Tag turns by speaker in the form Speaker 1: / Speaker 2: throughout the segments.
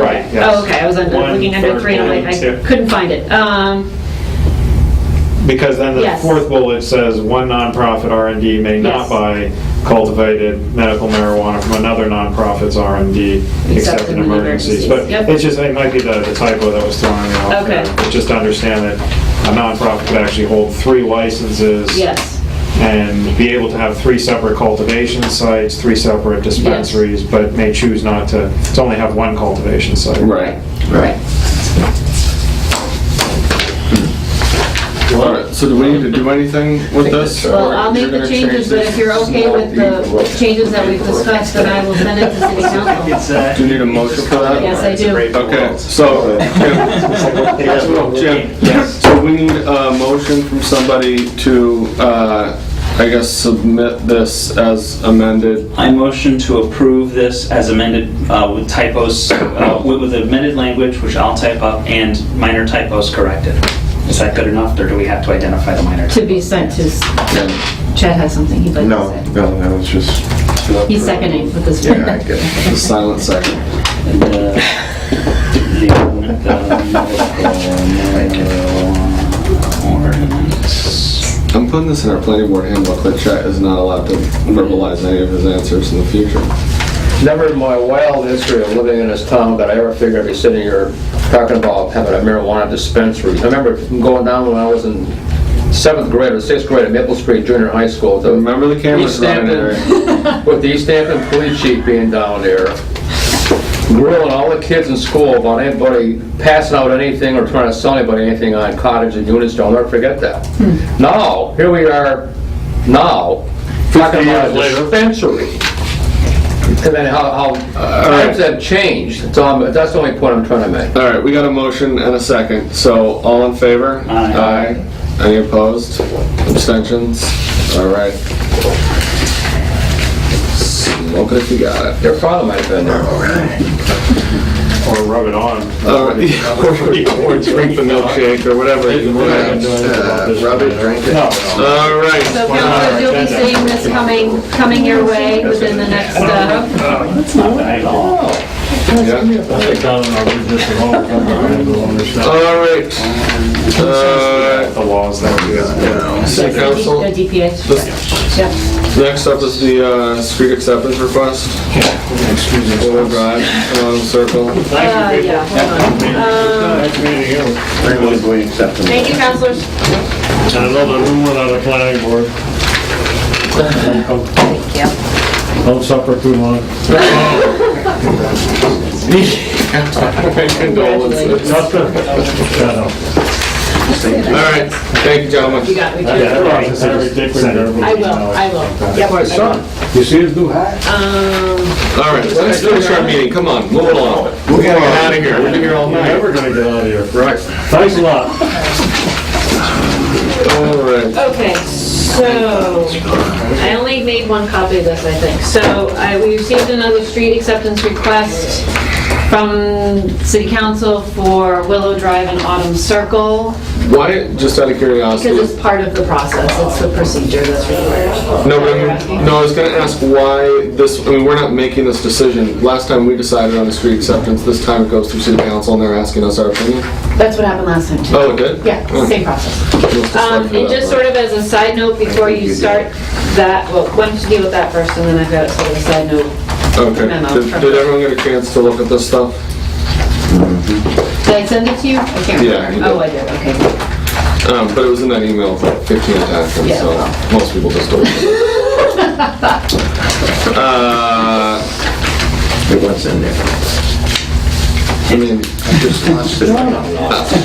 Speaker 1: Oh, I was under-
Speaker 2: One,
Speaker 1: looking under
Speaker 2: third
Speaker 1: three, and I'm
Speaker 2: bullet,
Speaker 1: like,
Speaker 2: two.
Speaker 1: I couldn't find it. Um,
Speaker 2: Because then the
Speaker 1: Yes.
Speaker 2: fourth bullet says, one nonprofit R and D may
Speaker 1: Yes.
Speaker 2: not buy cultivated medical marijuana from another nonprofit's R and D
Speaker 1: Except
Speaker 2: except in
Speaker 1: in
Speaker 2: emergencies.
Speaker 1: emergencies.
Speaker 2: But
Speaker 1: Yep.
Speaker 2: it's just, it might be the the typo that was thrown in off
Speaker 1: Okay.
Speaker 2: there. But Just to understand that a nonprofit could actually hold three licenses.
Speaker 1: yes,
Speaker 2: And be able to have three separate cultivation sites, three separate dispensaries, but may choose not to, to only have one cultivation site.
Speaker 3: Right.
Speaker 1: right.
Speaker 3: All right, so do we need to do anything with this?
Speaker 1: Well,
Speaker 3: or
Speaker 1: I'll
Speaker 3: you're
Speaker 1: make the
Speaker 3: gonna
Speaker 1: changes,
Speaker 3: change
Speaker 1: but
Speaker 3: this?
Speaker 1: if you're okay with the changes that we've discussed, then I will send it to city council.
Speaker 3: Do
Speaker 4: uh,
Speaker 3: uh, you need a motion for that?
Speaker 1: Yes, I do.
Speaker 3: Okay, so, Jim, Jim, so we need a motion from somebody to, uh, I guess, submit this as amended.
Speaker 5: I motion to approve this as amended uh, with typos, uh, with with amended language, which I'll type up, and minor typos corrected. Is that good enough, or do we have to identify the minor?
Speaker 1: To be sent to, Chad has something he'd like
Speaker 4: No,
Speaker 1: to
Speaker 4: no, that was just,
Speaker 1: say. He's seconding with this.
Speaker 4: yeah, I get it.
Speaker 3: The silent second.
Speaker 5: And, uh, the- the-
Speaker 3: I'm putting this in our planning board handbook, that Chet is not allowed to verbalize any of his answers in the future.
Speaker 6: Never in my wild history of living in this town that I ever figured I'd be sitting here talking about having a marijuana dispensary. I remember going down when I was in seventh grade or sixth grade at Maple Street Junior High School. the-
Speaker 3: Remember the cameras
Speaker 6: East
Speaker 3: running
Speaker 6: Hampton-
Speaker 3: there?
Speaker 6: With the East Hampton police chief being down there, grilling all the kids in school about anybody passing out anything or trying to sell anybody anything on cottage and units, don't ever forget that. Now, here we are, now, talking about a dispensary. And then how, how times have changed, that's all, I'm- that's the only point I'm trying to make.
Speaker 3: All right, we got a motion and a second, so all in favor?
Speaker 5: Aye.
Speaker 3: Aye. Any opposed? Abstentions? All right. Smoke it if you got it.
Speaker 6: Their father might have been there.
Speaker 2: Or rub it on.
Speaker 3: All
Speaker 2: Or
Speaker 3: right.
Speaker 2: drink the milkshake.
Speaker 3: Or whatever. you
Speaker 2: We're not gonna
Speaker 3: want.
Speaker 2: do anything about this.
Speaker 4: uh, Rub it, drink it.
Speaker 2: No.
Speaker 3: All right,
Speaker 1: So councilors, you'll be seeing this coming, coming your way within the next, uh,
Speaker 5: That's not bad at all.
Speaker 3: yeah. All right. Uh,
Speaker 2: The laws that we
Speaker 3: City council,
Speaker 1: the DPH. Yep.
Speaker 3: next up is the uh, street acceptance request. Oil Drive, Elm Circle.
Speaker 1: Uh, yeah, hold on. Um,
Speaker 4: We accept them.
Speaker 1: Thank you, councilors.
Speaker 2: Another room without a planning board. Don't suffer too long.
Speaker 3: Condolences. All right, thank you, gentlemen.
Speaker 1: You got me. too. I will, I will. Yep.
Speaker 6: My son.
Speaker 4: You see his new hat?
Speaker 1: Um,
Speaker 3: All right, so let's finish our meeting, come on, move along.
Speaker 4: We're
Speaker 3: Get out of here, we've been here all night.
Speaker 2: Never gonna get out of here.
Speaker 3: Right.
Speaker 2: Thanks a lot.
Speaker 3: All right,
Speaker 1: okay, so, I only made one copy of this, I think. So, I, we received another street acceptance request from city council for Willow Drive and Autumn Circle,
Speaker 3: why, just out of
Speaker 1: because
Speaker 3: curiosity,
Speaker 1: it's part of the process, it's the procedure that's required.
Speaker 3: no, but I'm, no, I was gonna ask why this, I mean, we're not making this decision. Last time we decided on the street acceptance, this time it goes through city council and they're asking us our opinion.
Speaker 1: That's what happened last time, too.
Speaker 3: Oh, it did?
Speaker 1: Yeah, same process. Um, And
Speaker 3: uh,
Speaker 1: just sort of as a side note, before you start that, well, why don't you deal with that first, and then I've got sort of a side note.
Speaker 3: Okay,
Speaker 1: memo
Speaker 3: did
Speaker 1: from-
Speaker 3: did everyone get a chance to look at this stuff?
Speaker 1: Did I send it to you? I can't
Speaker 3: Yeah, you
Speaker 1: remember. Oh, I did, okay.
Speaker 3: Um, but it was in that email for 15 times, and
Speaker 1: Yeah,
Speaker 3: so
Speaker 1: well.
Speaker 3: most people just don't. uh,
Speaker 4: It was in there.
Speaker 3: I mean,
Speaker 4: Just lost it.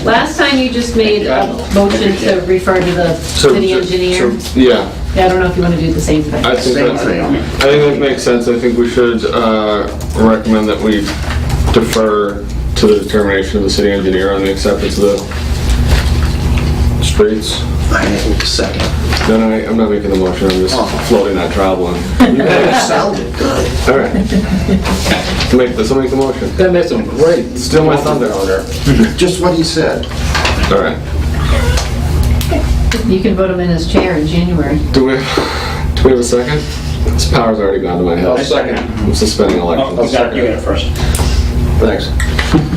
Speaker 1: Last time you just made a motion to refer to the
Speaker 3: so,
Speaker 1: city engineer.
Speaker 3: so- yeah,
Speaker 1: Yeah, I don't know if you want to do the same thing.
Speaker 3: I think
Speaker 4: Same
Speaker 3: that's,
Speaker 4: thing.
Speaker 3: I think that makes sense. I think we should uh, recommend that we defer to the determination of the city engineer on the acceptance of the streets.
Speaker 4: I need a second.
Speaker 3: No, no, I- I'm not making the motion. I'm
Speaker 4: Oh.
Speaker 3: just floating that traveling.
Speaker 4: You guys sounded good.
Speaker 3: All right, make this. I'll make the motion.
Speaker 6: That made some great.
Speaker 3: Steal my thunder.
Speaker 6: on there.
Speaker 4: Just what he said.
Speaker 3: All right.
Speaker 1: You can vote him in as chair in January.
Speaker 3: Do we, do we have a second? This power's already gone to my head.
Speaker 6: I'll second.
Speaker 3: I'm suspending
Speaker 5: Oh,
Speaker 3: elections.
Speaker 5: you got it, you got it first.
Speaker 6: Thanks.